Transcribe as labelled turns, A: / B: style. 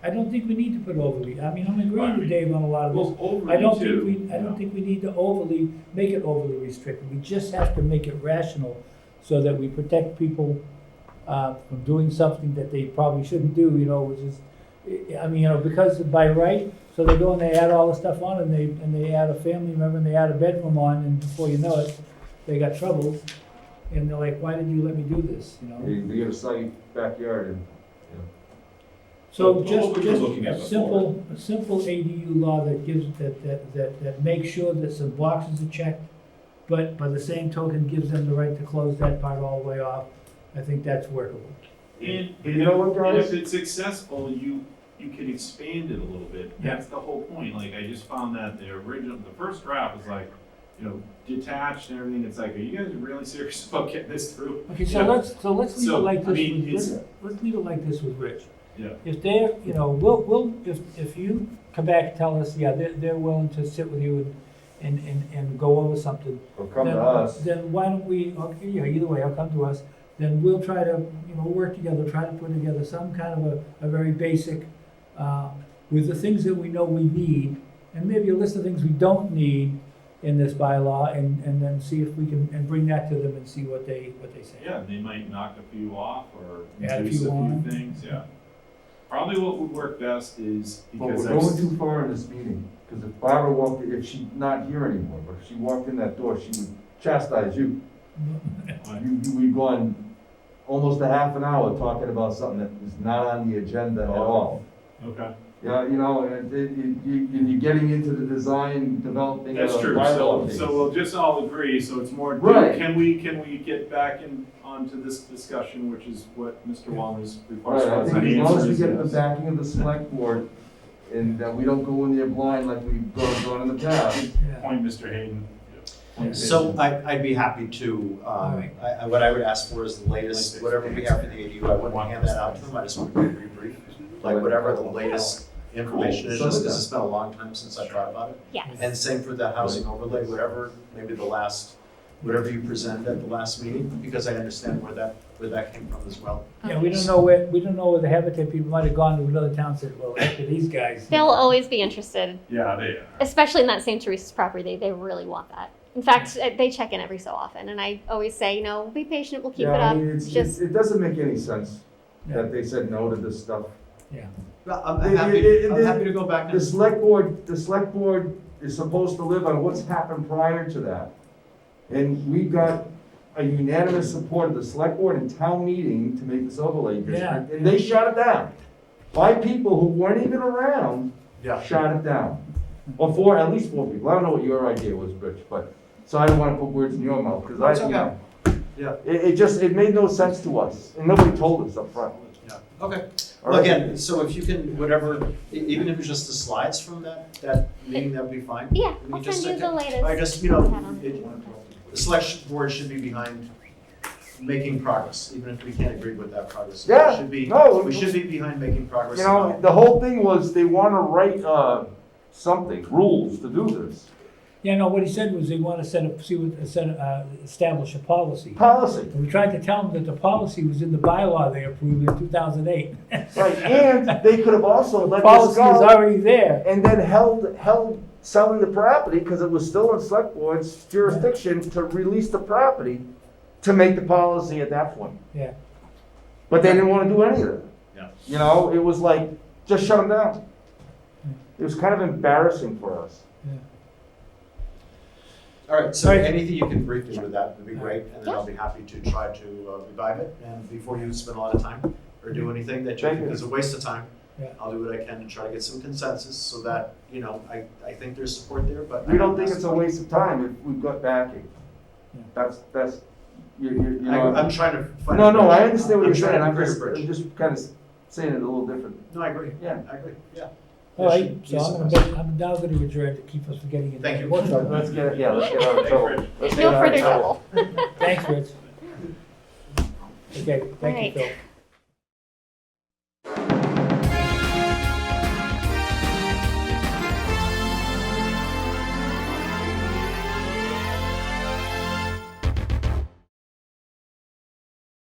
A: don't think we need to put overly, I mean, I'm agreeing
B: Why?
A: with Dave on a lot of this.
B: Well, overly
A: I don't think
B: too,
A: we, I
B: you know.
A: don't think we need to overly, make it overly restrictive, we just have to make it rational so that we protect people, uh, from doing something that they probably shouldn't do, you know, which is, I- I mean, you know, because by right, so they go and they add all the stuff on and they, and they add a family member and they add a bedroom on and before you know it, they got troubles. And they're like, why did you let me do this, you know?
C: They, they got a soggy backyard and,
A: So
B: Well,
A: just,
B: what we were
A: just
B: looking at
A: a
B: before.
A: simple, a simple ADU law that gives, that, that, that, that makes sure that some boxes are checked, but by the same token, gives them the right to close that part all the way off, I think that's workable.
B: And,
C: You
B: and
C: know
B: if-
C: what,
B: and
C: guys?
B: if it's successful, you, you can expand it a little bit.
A: Yeah.
B: That's the whole point. Like, I just found that the original, the first draft was like, you know, detached and everything. It's like, are you guys really serious about getting this through?
A: Okay, so
B: Yeah.
A: let's, so let's leave it
B: So, I
A: like this,
B: mean,
A: with-
B: it's-
A: let's, let's leave it like this with Rich.
B: Yeah.
A: If they're, you know, we'll, we'll, if, if you come back and tell us, yeah, they're, they're willing to sit with you and, and, and, and go over something,
C: or come to
A: then-
C: us.
A: Then why don't we, okay, yeah, either way, I'll come to us, then we'll try to, you know, work together, try to put together some kind of a, a very basic, uh, with the things that we know we need, and maybe a list of things we don't need in this bylaw, and, and then see if we can, and bring that to them and see what they, what they say.
B: Yeah, they might knock a few off or
A: Add a
B: reduce a
A: few
B: few
A: on.
B: things, yeah. Probably what would work best is
C: But we're
B: because I've,
C: going
B: s-
C: too far in this meeting, because if Barbara walked, if she's not here anymore, but if she walked in that door, she would chastise you. You, you, we've gone almost a half an hour talking about something that is not on the agenda at all.
B: okay,
C: Yeah, you know, and it, it, you, and you're getting into the design, developing of
B: that's true. So,
C: bylaw things.
B: so we'll just all agree, so it's more,
C: Right.
B: can we, can we get back in, onto this discussion, which is what Mr. Walner's request
C: Right, I
B: was.
C: think as
B: The
C: long as
B: answer
C: we
B: is
C: get the
B: yes.
C: backing of the select board, and that we don't go in there blind like we've gone, gone in the past.
A: Yeah.
B: Point, Mr. Hayden. Point
D: So I, I'd be happy to, um,
A: Alright.
D: I, I, what I would ask for is the latest, whatever we have for the ADU, I wouldn't hand that out to them, I just want to be brief. Like whatever the latest information is, just because it's been a long time since I thought about it.
E: Yes.
D: And same for the housing overlay, whatever, maybe the last, whatever you presented at the last meeting, because I understand where that, where that came from as well.
A: Yeah, we don't know where, we don't know where the Habitat people might have gone to another town, and said, well, after these guys.
E: They'll always be interested,
B: Yeah, they are.
E: especially in that St. Teresa's property. They, they really want that. In fact, uh, they check in every so often, and I always say, you know, be patient, we'll keep
C: Yeah, I mean,
E: it up.
C: it's-
E: Just
C: It doesn't make any sense
A: Yeah.
C: that they said no to this stuff.
D: But I'm
C: It- it-
D: happy,
C: it-
D: I'm happy to go back
C: The
D: and,
C: select board, the select board is supposed to live on what's happened prior to that. And we got a unanimous support of the select board and town meeting to make this overlay district,
A: Yeah.
C: and they shut it down. Five people who weren't even around
D: yeah,
C: shot it down. Or four, at least four people. I don't know what your idea was, Rich, but, so I don't wanna put words in your mouth, cause
D: That's
C: I, you
D: okay.
C: know.
D: Yeah.
C: It, it just, it made no sense to us, and nobody told us up front.
D: yeah, okay.
C: All right?
D: Again, so if you can, whatever, e- even if it's just the slides from that, that meeting, that'd be fine.
E: yeah,
D: I mean,
E: I'll
D: just
E: send you
D: like-
E: the latest.
D: I just, you know, it, the selection board should be behind making progress, even if we can't agree with that progress. We
C: Yeah,
D: should be-
C: no,
D: We should be behind making progress.
C: You know, the whole thing was they want to write uh, something, rules to do this,
A: Yeah, no, what he said was they wanna set up, see what, set, uh, establish a policy.
C: policy.
A: And we tried to tell them that the policy was in the bylaw they approved in two thousand eight.
C: Right, and they could have also let this
A: Policy is
C: go
A: already there.
C: and then held, held selling the property because it was still in select board's jurisdiction to release the property to make the policy at that point.
A: Yeah.
C: But they didn't want to do any of that.
D: Yeah.
C: You know, it was like, just shut them down. It was kind of embarrassing for us.
D: All right, so
A: All right.
D: anything you can brief me with that would be great, and then I'll be happy to try to uh, revive it. And before you spend a lot of time or do anything that you
C: Thank
D: think
C: you.
D: is a waste of time,
A: Yeah.
D: I'll do what I can to try to get some consensus so that, you know, I, I think there's support there, but.
C: We don't think it's a waste of time if we've got backing. That's, that's, you, you, you
D: I,
C: know.
D: I'm trying to find.
C: No,
D: a
C: no, I
D: bridge.
C: understand what you're saying,
D: I'm
C: I'm
D: trying to
C: just,
D: create a
C: I'm
D: bridge.
C: just kind of saying it a little different.
D: No, I agree.
C: Yeah.
D: I agree, yeah.
A: All right,
D: There should
A: so
D: be
A: I'm
D: some-
A: gonna, make- I'm now gonna adjourn to keep us from getting into.
D: Thank you.
A: workshop.
C: Let's get, yeah, let's get out of trouble. Let's get
E: no
C: out of
E: further trouble.
A: Thanks, Rich. Okay, thank you,
E: Right.
A: Phil.